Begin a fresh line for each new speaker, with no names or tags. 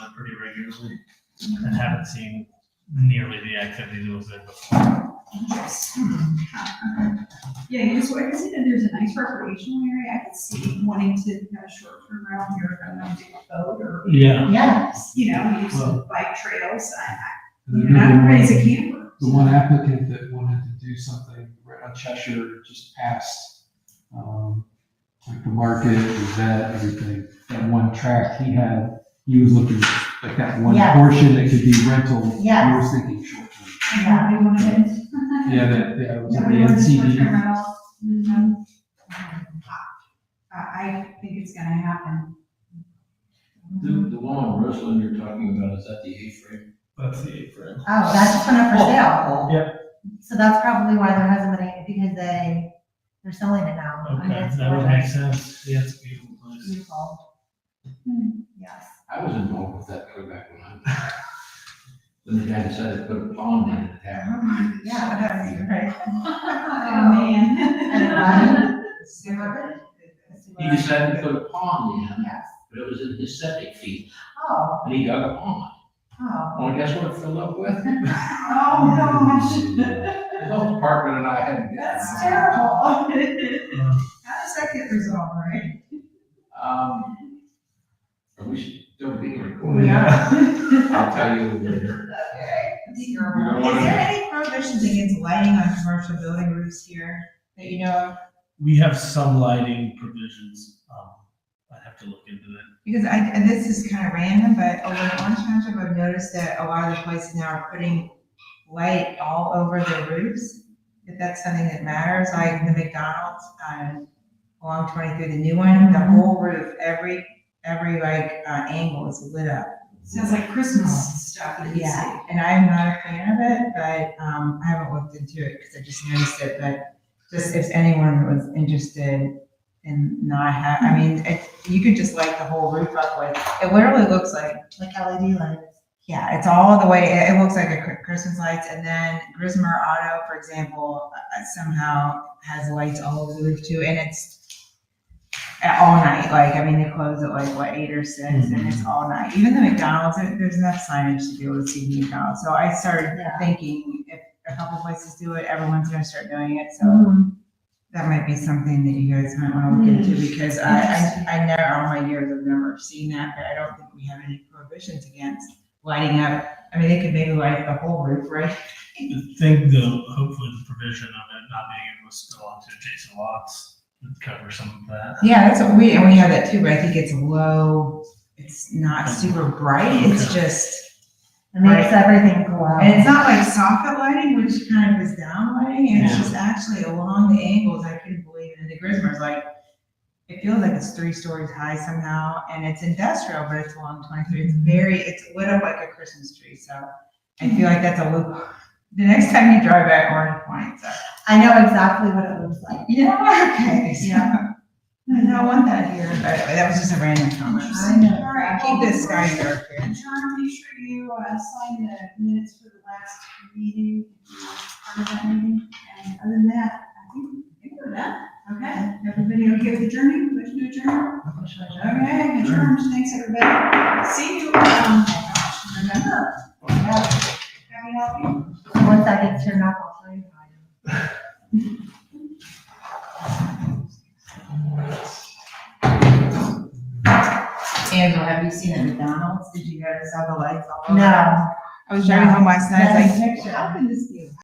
regularly and haven't seen nearly the activity that was there before.
Interesting. Yeah, because I can see that there's a nice recreational area, I could see wanting to have a short term around here, if I want to do a boat or,
Yeah.
Yes.
you know, use
Well-
some bike trails, I, I,
The
you know, not raise a camper.
one applicant that wanted to do something right on Cheshire, just past, um, like the market, the vet, everything. That one track he had, he was looking like that one
Yeah.
portion that could be rental.
Yeah.
He was thinking short term.
Yeah.
Nobody wanted it.
Yeah, that, that was at the
Nobody wanted short term
NCD.
rentals. Mhm. I, I think it's gonna happen.
The, the one on Roseland you're talking about, is that the A-frame?
That's the apron.
Oh, that's just went up for sale.
Yep.
So that's probably why there hasn't been any, because they, they're selling it now. I mean,
Okay,
it's
that would
gorgeous.
make sense. Yeah, it's a beautiful place.
Beautiful.
Hmm.
Yes.
I was involved with that way back when I, when the guy decided to put a pond in the town.
Yeah. right.
Oh, man.
And, Super.
He decided to put a pond in,
Yes.
but it was in his septic field,
Oh,
and he dug a pond.
oh.
Well, guess what it filled up with?
Oh, gosh.
The health department and I had to get.
That's terrible. How does that get resolved, right?
Um, are we still being
Oh,
recorded?
Yeah.
I'll tell you later.
Okay. Is
You don't wanna-
there any prohibitions against lighting on commercial building roofs here that you know of?
We have some lighting provisions. Um, I'd have to look into that.
Because I, and this is kind of random, but over in Orange Township, I've noticed that a lot of the places now are putting light all over their roofs. If that's something that matters, like the McDonald's, um, along twenty-three, the new one, the whole roof, every, every like, uh, angle is lit up.
Sounds like Christmas stuff. that you see.
Yeah, and I'm not a fan of it, but, um, I haven't looked into it because I just noticed it, but just if anyone was interested in not ha, I mean, it, you could just light the whole roof up with, it literally looks like,
Like LED lights.
yeah, it's all the way, it, it looks like a Chri- Christmas lights, and then Grismer Auto, for example, uh, somehow has lights all over the roof too, and it's at all night, like, I mean, they close at like, what, eight or six, and it's all night, even the McDonald's, there- there's enough signage to be able to see the McDonald's, so I started
Yeah.
thinking if a couple places do it, everyone's gonna start doing it, so
Mhm.
that might be something that you guys might wanna look into, because I, I, I know all my years I've never seen that, but I don't think we have any prohibitions against lighting up. I mean, they could maybe light the whole roof, right?
I think though, hopefully the provision of it not being able to spill onto adjacent lots would cover some of that.
Yeah, that's what we, and we have that too, but I think it's low, it's not super bright, it's
Okay.
just,
It makes everything glow.
and it's not like soffit lighting, which kind of is down lighting, and it's
Yeah.
just actually along the angles, I couldn't believe it, and the Grismer's like, it feels like it's three stories high somehow, and it's industrial, but it's along twenty-three, it's very, it's lit up like a Christmas tree, so I feel like that's a loop. The next time you drive by Orange Point, so.
I know exactly what it looks like.
Yeah, okay, yeah. I don't want that here. That was just a random comment.
I know.
All right,
Keep this
well,
guy dark here.
John, make sure you uh, sign the minutes for the last meeting, uh, part of that meeting. And other than that, I think I think we're done. Okay, everybody okay with adjourning? Motion to adjourn? Okay, adjourned. Thanks, everybody. See you, um, oh gosh, remember. Happy Halloween.
Once that gets turned off, I'll show you. how I do.
Angela, have you seen at McDonald's? Did you notice all the lights all over?
No.
I was driving home last night, I was like,
That's a picture.
how can this be?